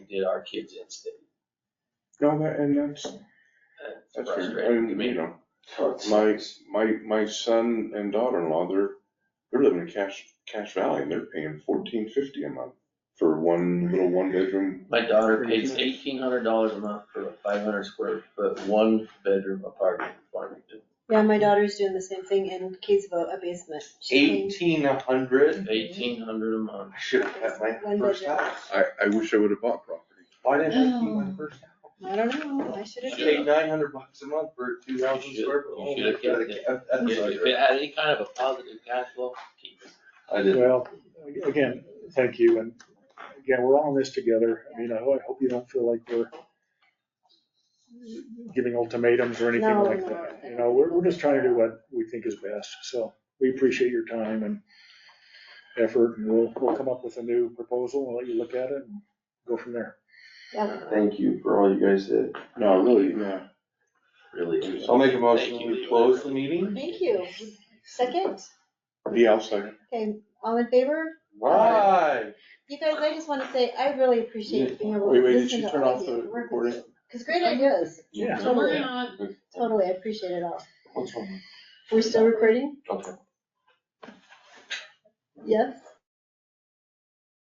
did our kids in state. No, that, and that's, That's that's, fair. I frustrating to mean, you me. know, my, my, my son and daughter-in-law, they're, they're living in Cache, Cache Valley and they're paying fourteen fifty a month for one little one-bedroom. My daughter pays eighteen hundred dollars a month for a five hundred square foot, one bedroom apartment in Farmington. Yeah, my daughter's doing the same thing in Kaysville, a basement. She Eighteen Mm-hmm. hundred, Eighteen hundred a month. I should have had my One first bedroom. house. I, I wish I would have bought property. Why didn't I keep my first house? I don't know, I should I have. Shit. paid nine hundred bucks a month for two thousand You square should- foot you home. should have I should've kept kept that If if treasure. it had any kind of a positive cash flow, keep it. I did. Well, again, thank you, and again, we're all in this together. I mean, I ho- I hope you don't feel like we're giving ultimatums or anything No, like no, that. I You know, don't we're, think we're just we'll trying to do do what we think is best, so we appreciate your time and effort, and we'll, we'll come up with a new proposal and let you look at it and go from there. Yeah. Thank you for all you guys did. No, really, yeah. Really. I'll make a Thank motion you, to Levi. close the meeting. Thank you. Second, Yeah, I'll second. okay, all in favor? Why? You guys, I just want to say, I really appreciate being able Wait, to wait, did listen you to turn all off of you. the work with recording? you. Cause great ideas, Yeah. totally, totally, I appreciate it all. What's wrong? We're still recording? Okay. Yes?